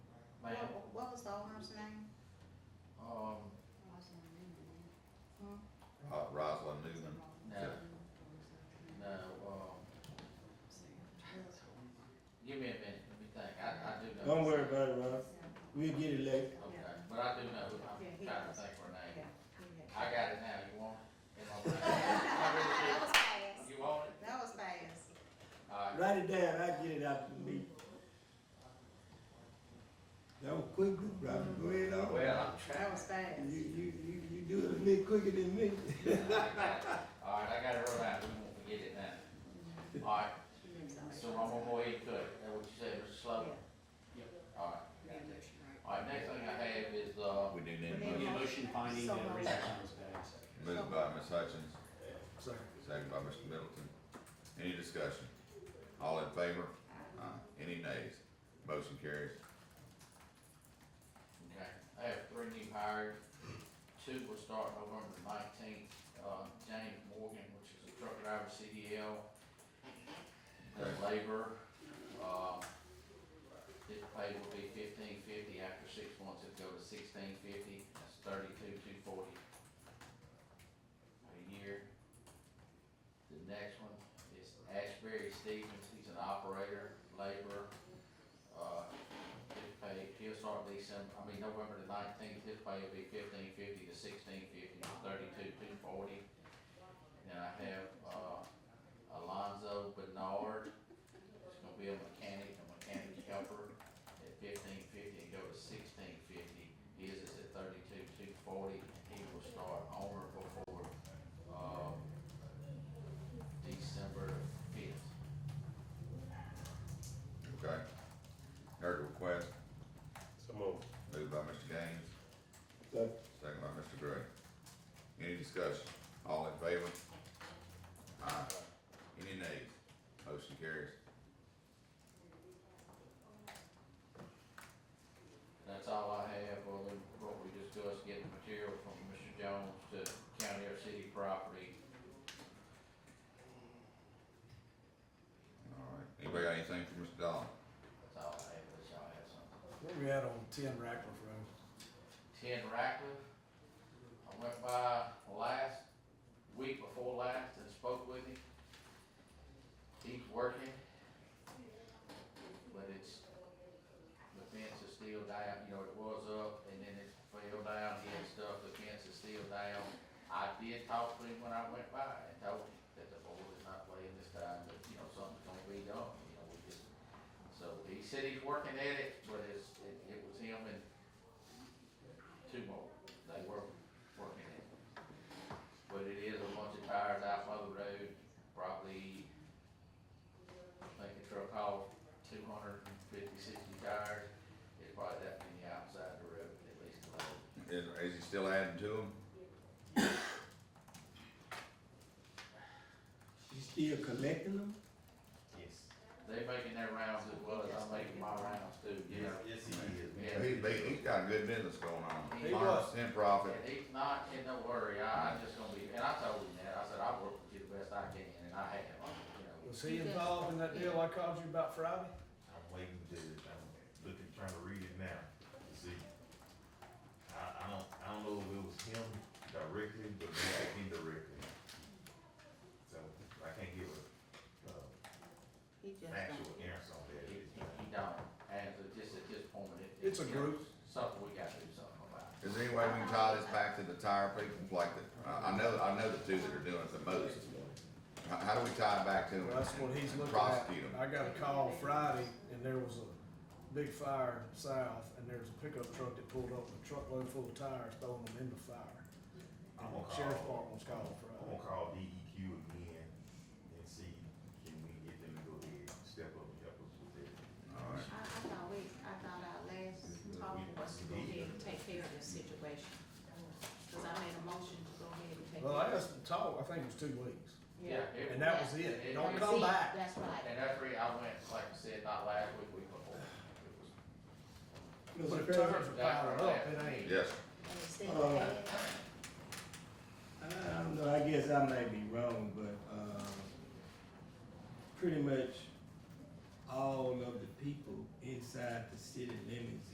Ma'am, What, what was the owner's name? um, Uh, Rosalind Newman, no, no, um, give me a minute, let me think, I, I do know. Don't worry about it, Ross. We'll get it later. Okay, but I do know, who- Yeah, I'm he trying to does. think of her name. Yeah. I That got it now, you want it? It's on my- I was really fast. do. You want it? That was fast. Alright, Write it down, I'll get it out to me. That was quick, Robin, go ahead on. well, I'm That trying. was fast. You, you, you, you do it a bit quicker than me. Alright, I got it right out, we won't forget it now. Alright, so I'm gonna go ahead and cut it, that what you said, Mr. Slow? Alright, alright, next thing I have is, uh, we do need a We need motion. Need a motion finding So and moved. reason times passed. Moved by Ms. Hutchins, Sorry. second by Mr. Middleton. Any discussion? All in favor? Aye. Any nays? Motion carries. Okay, I have three new hires. Two will start November nineteenth, uh, James Morgan, which is a truck driver, CDL, and labor. Uh, his pay will be fifteen fifty, after six months it'll go to sixteen fifty, that's thirty-two, two forty a year. The next one is Ashbury Stevens, he's an operator, laborer, uh, his pay, he'll start December, I mean, November the nineteenth, his pay will be fifteen fifty to sixteen fifty to thirty-two, two forty. And then I have, uh, Alonzo Bernard, he's gonna be a mechanic, a mechanic helper at fifteen fifty and go to sixteen fifty. His is at thirty-two, two forty, and he will start on or before, um, December fifth. Okay. Heard the request, So moved. moved by Mr. Gaines, Sorry. second by Mr. Gray. Any discussion? All in favor? Aye. Any nays? Motion carries. That's all I have, other than what we discussed, getting material from Mr. Jones to county or city property. All right. Anybody got anything for Mr. Dahl? That's all I have, unless y'all have something. Where we at on ten Rackliff Road? Ten Ratcliffe, I went by last, week before last and spoke with him. He's working. But it's, the fence is still down, you know, it was up and then it fell down, he had stuff, the fence is still down. I did talk to him when I went by and told him that the board is not playing this time, that, you know, something's gonna be done, you know, we just. So he said he's working at it, but it's, it, it was him and two more, they were working at it. But it is a bunch of tires out by the road, probably, I think the truck hauled 250, 60 tires. It's probably that many outside the road, at least a load. Is, is he still adding to them? You still collecting them? Yes. They making their rounds as well as I'm making my rounds too, yeah. Yes, he is. Yeah. He, he- he's got a good business going on. He Five percent profit. And he's not in no hurry, I, I just gonna be, and I told him that, I said, I work with you the best I can, and I have, you know. Was he involved in that deal I called you about Friday? I'm waiting to, I'm looking, trying to read it now, to see. I, I don't, I don't know if it was him directly, but maybe indirectly. So I can't give a, uh, He just. an actual answer on that. He, he It's- he don't, and so just at this point, it. It's a group. Something we gotta do something about. Is there any way we can tie this back to the tire people, like the, I I know, I know the two that are doing it the most. How, how do we tie it back to them? Well, that's what he's and looking Prosecute at. them. I got a call Friday and there was a big fire south and there was a pickup truck that pulled up with a truckload full of tires throwing them in the fire. I'm gonna Sheriff's Department call, was called I'm gonna Friday. call DEQ again and see, can we get them to go ahead and step up and help us with that? All right. I, I thought we, I thought our last talk was to go ahead and take care of this situation. Cause I made a motion to go ahead and take. Well, I care of- asked Todd, I think it was two weeks. Yeah. it- And that was it. Don't come That's it. back. That's right. And that's where I went, like I said, not last week, week before. It was- But if tires are piling up, it ain't. Yes, And it said Uh, that. I don't know, Um, I guess I may be wrong, but, um, pretty much all of the people inside the city limits